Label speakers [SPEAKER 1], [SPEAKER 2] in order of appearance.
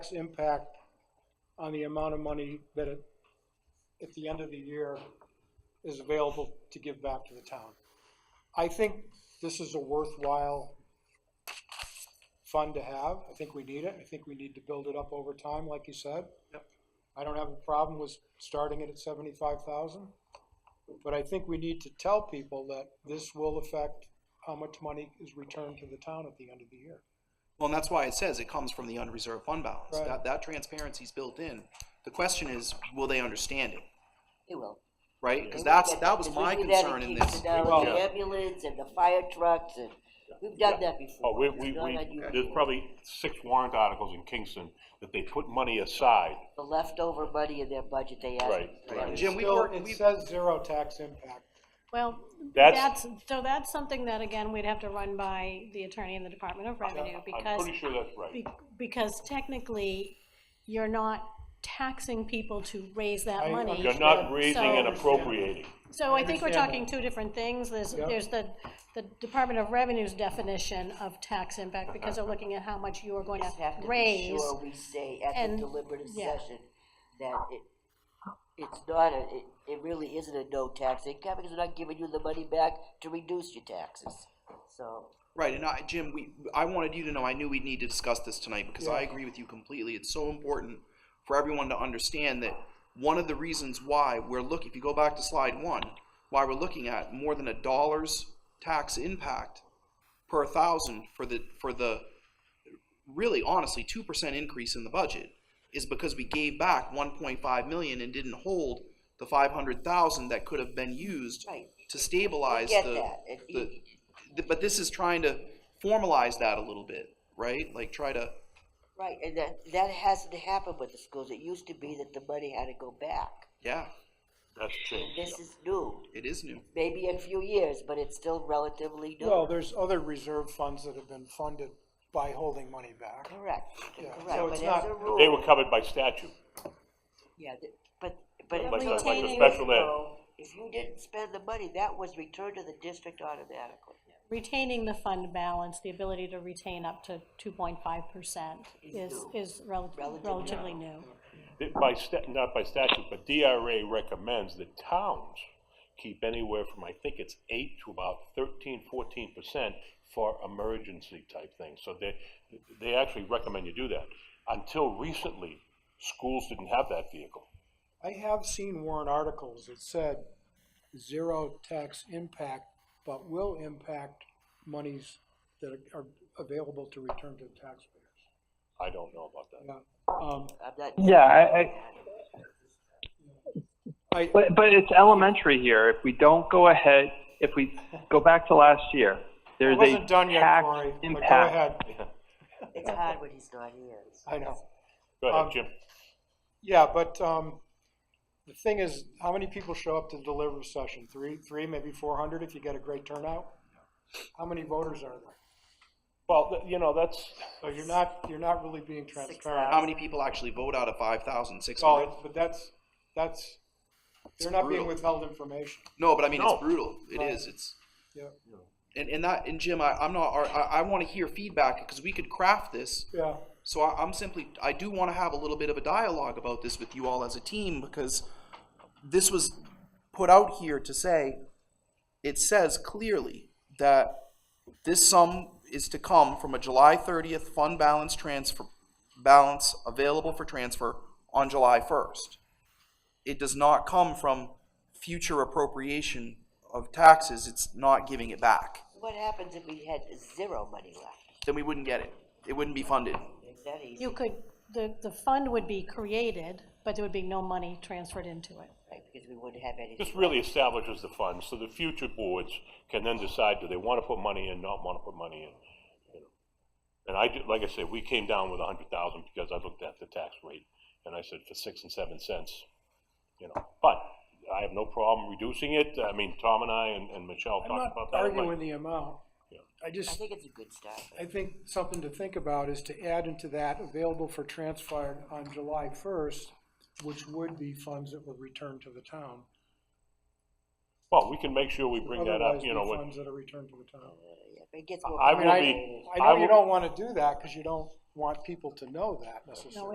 [SPEAKER 1] tax impact on the amount of money that it, at the end of the year is available to give back to the town. I think this is a worthwhile fund to have. I think we need it. I think we need to build it up over time, like you said.
[SPEAKER 2] Yep.
[SPEAKER 1] I don't have a problem with starting it at seventy-five thousand, but I think we need to tell people that this will affect how much money is returned to the town at the end of the year.
[SPEAKER 2] Well, and that's why it says it comes from the unreserved fund balance.
[SPEAKER 1] Right.
[SPEAKER 2] That, that transparency's built in. The question is, will they understand it,
[SPEAKER 3] They will.
[SPEAKER 2] right? Because that's,
[SPEAKER 3] We've got
[SPEAKER 2] that was
[SPEAKER 3] because
[SPEAKER 2] my
[SPEAKER 3] we do that
[SPEAKER 2] concern in
[SPEAKER 3] keeps
[SPEAKER 2] this.
[SPEAKER 3] it down
[SPEAKER 1] Well-
[SPEAKER 3] with the ambulance and the fire trucks and, we've done that before.
[SPEAKER 4] Oh, we,
[SPEAKER 3] We've
[SPEAKER 4] we,
[SPEAKER 3] done
[SPEAKER 4] we,
[SPEAKER 3] that before.
[SPEAKER 4] there's probably six warrant articles in Kingston that they put money aside.
[SPEAKER 3] The leftover money in their budget they ask.
[SPEAKER 4] Right,
[SPEAKER 3] for.
[SPEAKER 4] right.
[SPEAKER 2] Jim, we
[SPEAKER 1] Still,
[SPEAKER 2] work,
[SPEAKER 1] It
[SPEAKER 2] we,
[SPEAKER 1] says zero tax impact.
[SPEAKER 5] Well,
[SPEAKER 4] That's-
[SPEAKER 5] that's, so that's something that, again, we'd have to run by the attorney in the Department of Revenue,
[SPEAKER 4] I'm
[SPEAKER 5] because,
[SPEAKER 4] pretty sure that's right.
[SPEAKER 5] be- because technically, you're not taxing people to raise
[SPEAKER 1] I
[SPEAKER 5] that money.
[SPEAKER 4] You're not
[SPEAKER 1] So-
[SPEAKER 4] raising and appropriating.
[SPEAKER 5] So I think we're
[SPEAKER 1] understand
[SPEAKER 5] talking two different things, there's,
[SPEAKER 1] Yep.
[SPEAKER 5] there's the, the Department of Revenue's definition of tax impact, because they're looking at how much you are going
[SPEAKER 3] Just have
[SPEAKER 5] to
[SPEAKER 3] to be
[SPEAKER 5] raise.
[SPEAKER 3] sure we say at the
[SPEAKER 5] and-
[SPEAKER 3] deliberative
[SPEAKER 5] yeah.
[SPEAKER 3] session that it, it's not a, it, it really isn't a no tax income, because they're not giving you the money back to reduce your taxes, so.
[SPEAKER 2] right, and I, Jim, we, I wanted you to know, I knew we'd need to discuss this tonight, because I
[SPEAKER 1] Yeah.
[SPEAKER 2] agree with you completely. It's so important for everyone to understand that one of the reasons why we're looking, if you go back to slide one, why we're looking at more than a dollar's tax impact per thousand for the, for the really honestly two percent increase in the budget is because we gave back one point five million and didn't hold the five hundred thousand that could have been used
[SPEAKER 3] Right.
[SPEAKER 2] to stabilize
[SPEAKER 3] get
[SPEAKER 2] the,
[SPEAKER 3] that. It-
[SPEAKER 2] the, th- but this is trying to formalize that a little bit, right? Like try to,
[SPEAKER 3] Right, and that, that hasn't happened with the schools, it used to be that the money had to go back,
[SPEAKER 2] yeah,
[SPEAKER 4] That's changed.
[SPEAKER 3] this is new,
[SPEAKER 2] it is new.
[SPEAKER 3] maybe in a few years, but it's still relatively new.
[SPEAKER 1] Well, there's other reserve funds that have been funded by holding money back.
[SPEAKER 3] Correct,
[SPEAKER 1] Yeah,
[SPEAKER 3] correct,
[SPEAKER 1] so it's
[SPEAKER 3] but as
[SPEAKER 1] not-
[SPEAKER 3] a
[SPEAKER 4] They
[SPEAKER 3] rule,
[SPEAKER 4] were covered by statute.
[SPEAKER 3] yeah, th- but, but.
[SPEAKER 4] Like a- like a
[SPEAKER 5] Retaining-
[SPEAKER 4] special ed.
[SPEAKER 3] If you didn't spend the money, that was returned to the district automatically.
[SPEAKER 5] Retaining the fund balance, the ability to retain up to two point five percent is,
[SPEAKER 3] new.
[SPEAKER 5] is rel-
[SPEAKER 3] Relatively
[SPEAKER 5] relatively new.
[SPEAKER 4] That By sta, not by statute, but DRA recommends that towns keep anywhere from, I think it's eight to about thirteen, fourteen percent for emergency type things. So they, they actually recommend you do that. Until recently, schools didn't have that vehicle.
[SPEAKER 1] I have seen warrant articles that said zero tax impact, but will impact monies that are available to return to taxpayers.
[SPEAKER 4] I don't know about that.
[SPEAKER 1] Yeah, um,
[SPEAKER 3] I'm not.
[SPEAKER 6] Yeah, I, I,
[SPEAKER 1] I,
[SPEAKER 6] but, but it's elementary here. If we don't go ahead, if we go back to last year,
[SPEAKER 1] I
[SPEAKER 6] there's a
[SPEAKER 1] wasn't done yet,
[SPEAKER 6] tax
[SPEAKER 1] Cory, but go
[SPEAKER 6] impact.
[SPEAKER 1] ahead,
[SPEAKER 3] It's hard when he's not here. It's-
[SPEAKER 1] I know.
[SPEAKER 4] Go
[SPEAKER 1] Um,
[SPEAKER 4] ahead, Jim.
[SPEAKER 1] Yeah, but, um, the thing is, how many people show up to the deliberative session? Three, three, maybe four hundred if you get a great turnout? How many voters are there?
[SPEAKER 4] Well, th- you know, that's,
[SPEAKER 1] So you're not, you're not really being transparent.
[SPEAKER 2] How many people actually vote out of five thousand six
[SPEAKER 1] Oh,
[SPEAKER 2] hundred?
[SPEAKER 1] it's- but that's, that's, they're not being
[SPEAKER 2] brutal.
[SPEAKER 1] withheld information.
[SPEAKER 2] No, but I mean,
[SPEAKER 4] No.
[SPEAKER 2] it's brutal. It
[SPEAKER 1] Right.
[SPEAKER 2] is, it's,
[SPEAKER 1] Yeah,
[SPEAKER 2] and, and that, and Jim, I, I'm not, I, I wanna hear feedback, because we could craft this
[SPEAKER 1] yeah.
[SPEAKER 2] So I, I'm simply, I do want to have a little bit of a dialogue about this with you all as a team because this was put out here to say, it says clearly that this sum is to come from a July thirtieth fund balance transfer, balance available for transfer on July first. It does not come from future appropriation of taxes. It's not giving it back.
[SPEAKER 3] What happens if we had zero money left?
[SPEAKER 2] Then we wouldn't get it. It wouldn't be funded.
[SPEAKER 3] Is that easy?
[SPEAKER 5] You could, the, the fund would be created, but there would be no money transferred into it.
[SPEAKER 3] Right, Because we wouldn't have anything.
[SPEAKER 4] this really establishes the fund, so the future boards can then decide, do they want to put money in, not want to put money in? you know. And I, did- like I said, we came down with a hundred thousand because I looked at the tax rate, and I said for six and seven cents, you know, but I have no problem reducing it, I mean, Tom and I and, and Michelle
[SPEAKER 1] I'm
[SPEAKER 4] talked
[SPEAKER 1] not
[SPEAKER 4] about that. I'm like,
[SPEAKER 1] arguing the amount. I
[SPEAKER 3] I
[SPEAKER 1] just,
[SPEAKER 3] think it's a good start.
[SPEAKER 1] I think something to think about is to add into that available for transfer on July first, which would be funds that were returned to the town.
[SPEAKER 4] Well, we can make sure we bring that up,
[SPEAKER 1] Otherwise,
[SPEAKER 4] you
[SPEAKER 1] be
[SPEAKER 4] know, when-
[SPEAKER 1] funds that are returned to the town.
[SPEAKER 3] Yeah, but It gets more.
[SPEAKER 4] I
[SPEAKER 1] I mean,
[SPEAKER 4] will
[SPEAKER 1] I,
[SPEAKER 4] be-
[SPEAKER 1] I
[SPEAKER 4] I
[SPEAKER 1] know you
[SPEAKER 4] will-
[SPEAKER 1] don't wanna do that, cause you don't want people to know that necessarily.